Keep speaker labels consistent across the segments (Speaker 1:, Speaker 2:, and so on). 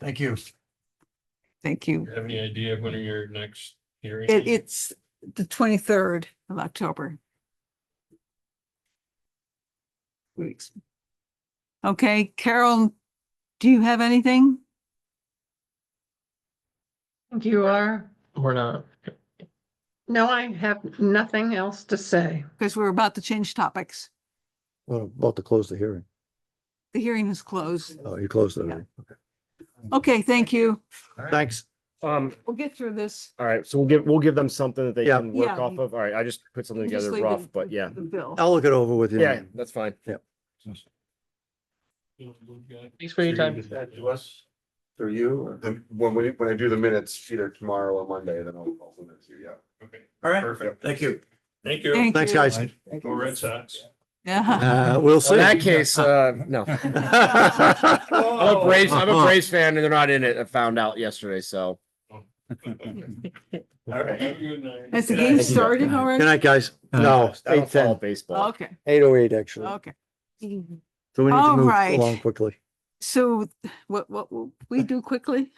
Speaker 1: Thank you.
Speaker 2: Thank you.
Speaker 3: You have any idea of when are your next hearing?
Speaker 2: It,
Speaker 3: is?
Speaker 2: it's the twenty-third of October. Weeks. Okay, Carol, do you have anything?
Speaker 4: think You are.
Speaker 3: We're not.
Speaker 4: No, I have nothing else to say.
Speaker 2: Because we're about to change topics.
Speaker 5: Well, about to close the hearing.
Speaker 2: The hearing is closed.
Speaker 5: Oh, you closed the
Speaker 2: Yeah.
Speaker 5: hearing. Okay.
Speaker 2: Okay, thank you.
Speaker 5: Thanks.
Speaker 6: Um,
Speaker 2: We'll get through this.
Speaker 6: all right, so we'll give, we'll give them something that they
Speaker 5: Yeah.
Speaker 6: can work
Speaker 2: Yeah.
Speaker 6: off of. All right, I just put something
Speaker 2: We'll just
Speaker 6: together
Speaker 2: leave the-
Speaker 6: rough, but yeah.
Speaker 2: The bill.
Speaker 5: I'll look it over with you.
Speaker 6: Yeah, that's fine.
Speaker 3: Thanks
Speaker 7: for your time.
Speaker 3: To us.
Speaker 7: Through you? or- When we, when I do the minutes, either tomorrow or Monday, then I'll, I'll send it to you, yeah.
Speaker 3: Okay,
Speaker 1: All right.
Speaker 3: perfect.
Speaker 1: Thank you.
Speaker 3: Thank you.
Speaker 2: Thank
Speaker 5: Thanks,
Speaker 2: you.
Speaker 5: guys.
Speaker 3: Go Red Sox.
Speaker 2: Yeah.
Speaker 5: Uh, we'll see.
Speaker 6: So in that case, uh, no.
Speaker 2: Oh,
Speaker 6: I'm a Braves, I'm a Braves fan and they're not in it. I found out yesterday, so.
Speaker 3: All right. Have a good night.
Speaker 2: Has the game
Speaker 5: Thank you.
Speaker 2: started
Speaker 5: Good
Speaker 2: already?
Speaker 5: night, guys. No,
Speaker 6: I don't
Speaker 5: eight
Speaker 6: follow
Speaker 5: ten,
Speaker 6: baseball.
Speaker 2: Okay,
Speaker 5: eight oh eight, actually.
Speaker 2: okay.
Speaker 5: So we need
Speaker 2: All
Speaker 5: to move
Speaker 2: right.
Speaker 5: along quickly.
Speaker 2: So what, what will we do quickly?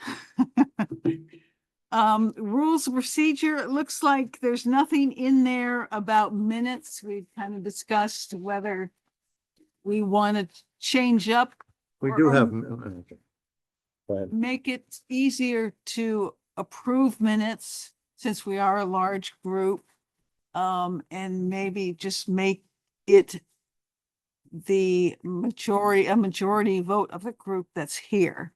Speaker 2: Um, rules of procedure, it looks like there's nothing in there about minutes. We kind of discussed whether we want to change up,
Speaker 5: We
Speaker 2: Or-
Speaker 5: do
Speaker 2: or-
Speaker 5: have. okay. Go ahead.
Speaker 2: make it easier to approve minutes since we are a large group. Um, and maybe just make it the majority, a majority vote of the group that's here.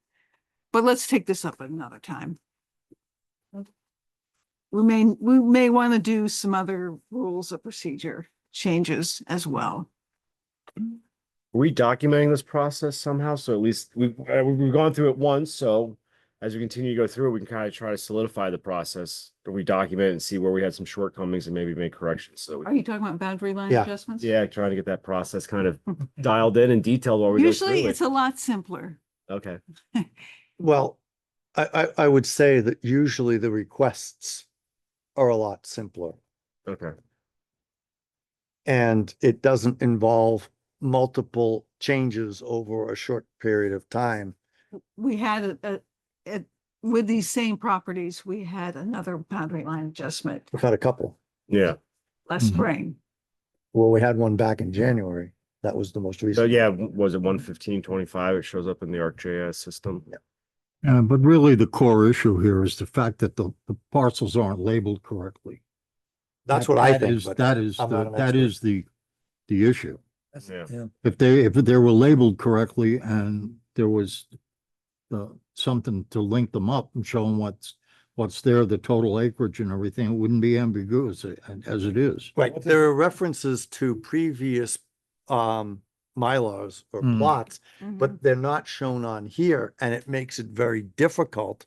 Speaker 2: But let's take this up another time. We may, we may want to do some other rules of procedure changes as well.
Speaker 6: Are we documenting this process somehow? So at least we've, uh, we've gone through it once, so as we continue to go through, it, we can kind of try to solidify the process. Or we document it and see where we had some shortcomings and maybe make corrections. So,
Speaker 2: Are
Speaker 6: we-
Speaker 2: you talking about boundary line
Speaker 5: Yeah.
Speaker 2: adjustments?
Speaker 6: yeah, trying to get that process kind of dialed in and detailed while we go through
Speaker 2: Usually
Speaker 6: it.
Speaker 2: it's a lot simpler.
Speaker 6: Okay,
Speaker 5: Well, I, I, I would say that usually the requests are a lot simpler.
Speaker 6: okay.
Speaker 5: And it doesn't involve multiple changes over a short period of time.
Speaker 2: we had a, a, it- with these same properties, we had another boundary line adjustment
Speaker 5: We've had a couple.
Speaker 6: Yeah,
Speaker 2: last
Speaker 1: Mhm.
Speaker 2: spring.
Speaker 5: Well, we had one back in January. That was the most
Speaker 6: so
Speaker 5: recent.
Speaker 6: yeah, w- was it one fifteen twenty-five? It shows up in the ArcGIS system.
Speaker 8: Uh, but really the core issue here is the fact that the, the parcels aren't labeled correctly.
Speaker 5: That's
Speaker 8: That-
Speaker 5: what I
Speaker 8: that
Speaker 5: think.
Speaker 8: is-
Speaker 5: but
Speaker 8: That is,
Speaker 5: I'm not
Speaker 8: the-
Speaker 5: an
Speaker 8: that
Speaker 5: expert.
Speaker 8: is the, the issue.
Speaker 6: Yeah.
Speaker 8: If they, if they were labeled correctly and there was uh, something to link them up and show them what's, what's there, the total acreage and everything, it wouldn't be ambiguous uh, as it is.
Speaker 5: Right, there are references to previous um Mylars or
Speaker 6: Hmm.
Speaker 8: Mm.
Speaker 5: plots,
Speaker 2: Mhm.
Speaker 5: but they're not shown on here, and it makes it very difficult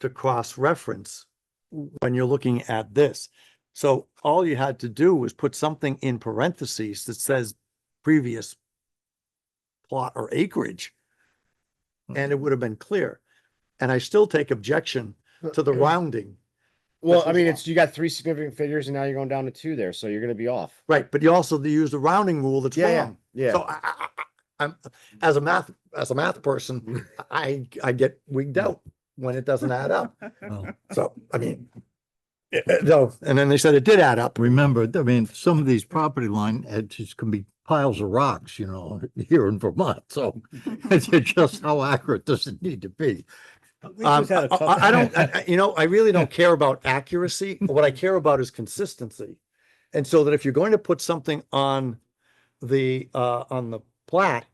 Speaker 5: to cross-reference when you're looking at this. So all you had to do was put something in parentheses that says previous plot or acreage, and
Speaker 6: Mm.
Speaker 5: it would have been clear. And I still take objection to the rounding.
Speaker 6: Well,
Speaker 5: This
Speaker 6: I
Speaker 5: is
Speaker 6: mean,
Speaker 5: off.
Speaker 6: it's, you got three significant figures and now you're going down to two there, so you're gonna be off.
Speaker 5: Right, but you also use the rounding rule that's
Speaker 6: Yeah, yeah,
Speaker 5: wrong.
Speaker 6: yeah.
Speaker 5: So I, I, I- I'm, as a math, as a math person, I, I get wigged out when it doesn't add up.
Speaker 8: Well-
Speaker 5: So, I mean, it- it- no, and then they said it did add up.
Speaker 8: Remember, I mean, some of these property line edges can be piles of rocks, you know, here in Vermont, so it's just how accurate does it need to be?
Speaker 5: Um, I, I- I don't, I- I- you know, I really don't care about accuracy. What I care about is consistency. And so that if you're going to put something on the, uh, on the plat,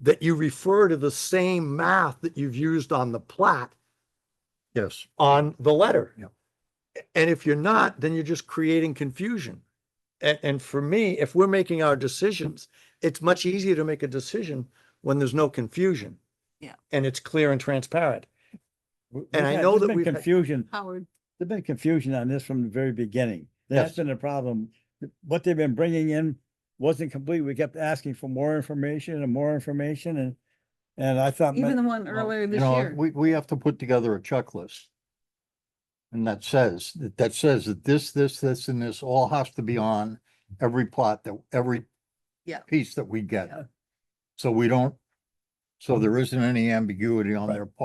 Speaker 5: that you refer to the same math that you've used on the plat
Speaker 8: Yes.
Speaker 5: on the letter.
Speaker 8: Yep.
Speaker 5: And if you're not, then you're just creating confusion. And, and for me, if we're making our decisions, it's much easier to make a decision when there's no confusion.
Speaker 2: Yeah.
Speaker 5: And it's clear and transparent.
Speaker 9: W-
Speaker 5: And
Speaker 9: we've
Speaker 5: I
Speaker 9: had-
Speaker 5: know
Speaker 9: there's
Speaker 5: that
Speaker 9: been
Speaker 5: we've had-
Speaker 9: Confusion,
Speaker 2: Howard,
Speaker 9: there's been confusion on this from the very beginning. That's
Speaker 5: Yes.
Speaker 9: been a problem. What they've been bringing in wasn't complete. We kept asking for more information and more information and, and I thought.
Speaker 2: even
Speaker 9: my-
Speaker 2: the one
Speaker 9: well,
Speaker 2: earlier
Speaker 8: Um, You
Speaker 2: this
Speaker 8: know,
Speaker 2: year.
Speaker 8: we, we have to put together a checklist. And that says, that that says that this, this, this, and this all has to be on every plot that, every
Speaker 2: Yeah.
Speaker 8: piece that we get.
Speaker 2: Yeah. Um,
Speaker 8: So we don't, so there isn't any ambiguity on their part.